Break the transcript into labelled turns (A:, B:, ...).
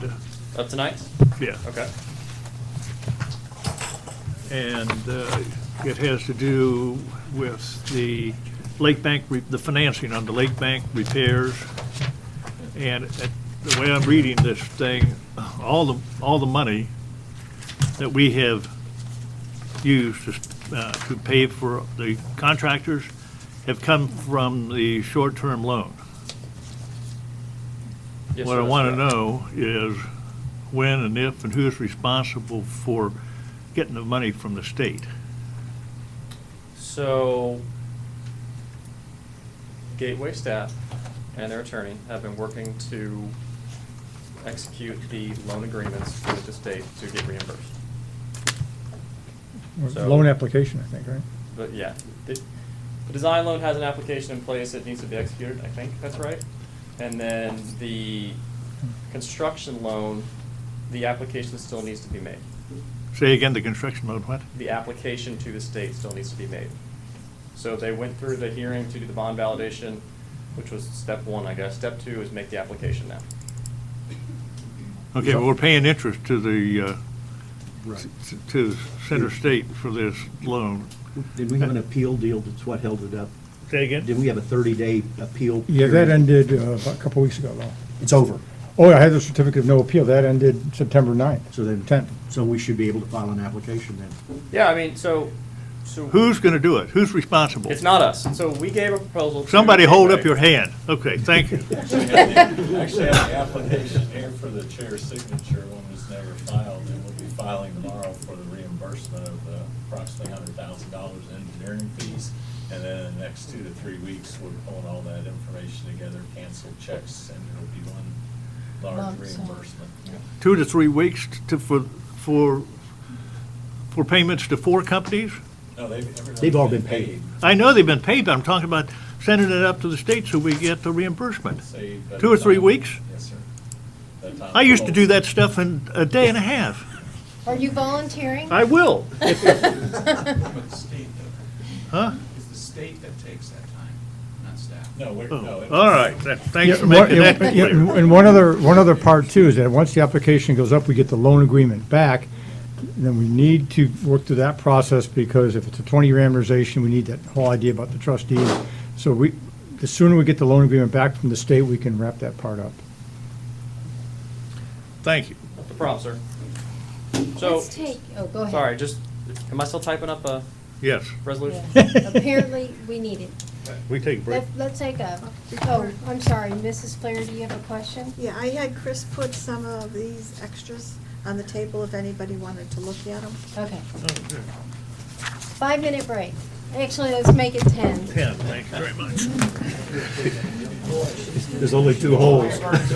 A: Of tonight?
B: Yeah.
A: Okay.
B: And uh, it has to do with the Lake Bank, re- the financing on the Lake Bank repairs. And it- the way I'm reading this thing, all the, all the money that we have used to s- uh, to pay for the contractors have come from the short-term loan.
A: Yes,
B: What
A: sir,
B: I
A: that's
B: want to
A: correct.
B: know is when and if and who's responsible for getting the money from the state?
A: So, Gateway staff and their attorney have been working to execute the loan agreements with the state to get reimbursed. So-
C: Loan application, I think, right?
A: But yeah, the, the design loan has an application in place that needs to be executed, I think that's right. And then the construction loan, the application still needs to be made.
B: Say again, the construction loan, what?
A: The application to the state still needs to be made. So they went through the hearing to do the bond validation, which was step one, I guess. Step two is make the application now.
B: Okay, but we're paying interest to the, uh, s- to Center State for this loan.
D: Did we have an appeal deal that's what held it up?
B: Say
D: Did we have a 30-day appeal?
C: Yeah, that
D: period?
C: ended uh, about a couple weeks ago, though.
D: It's over,
C: Oh, I had the certificate of no appeal. That ended September 9th.
D: so then,
C: 10th.
D: so we should be able to file an application then.
A: Yeah, I mean, so, so.
B: Who's going to do it? Who's responsible?
A: It's not us. So we gave a proposal. to
B: Somebody hold up
A: Gateway.
B: your hand. Okay, thank you.
E: Actually, I have the application here for the chair's signature, one was never filed, and we'll be filing tomorrow for the reimbursement of the approximately hundred thousand dollars in engineering fees. And then in the next two to three weeks, we're pulling all that information together, cancel checks, and it'll be one large
F: Lump sum.
E: reimbursement.
B: Two to three weeks to, for, for, for payments to four companies?
E: No, they've, everyone's
D: They've all
E: been
D: been paid.
E: paid,
B: I know they've been paid, but I'm talking about sending it up to the state so we get the reimbursement.
E: say. by
B: Two
E: the
B: or three
E: time-
B: weeks?
E: Yes, sir. By the time-
B: I used to do that stuff in a day and a half.
F: Are you volunteering?
B: I will.
G: But the state, though,
B: Huh?
G: it's the state that takes that time, not staff.
E: No, we're,
B: Oh,
E: no. it-
B: All right, That- thanks for
C: Yeah, one-
B: making that
C: yeah,
B: clear.
C: And one other, one other part too is that once the application goes up, we get the loan agreement back, then we need to work through that process because if it's a twenty-year amortization, we need that whole idea about the trustee. So we, the sooner we get the loan agreement back from the state, we can wrap that part up.
B: Thank you.
A: The prompt, sir. So,
F: Let's take, oh, go ahead.
A: sorry, just, am I still typing up a
B: Yes,
A: resolution?
F: Apparently, we need it.
B: we take a break.
F: Let- Let's take a, oh, I'm sorry, Mrs. Flair, do you have a question?
H: Yeah, I had Chris put some of these extras on the table if anybody wanted to look at them.
F: Okay.
B: Oh,
F: Five-minute break. Actually, let's make it 10.
B: Ken, thank you very much.
D: There's only two holes.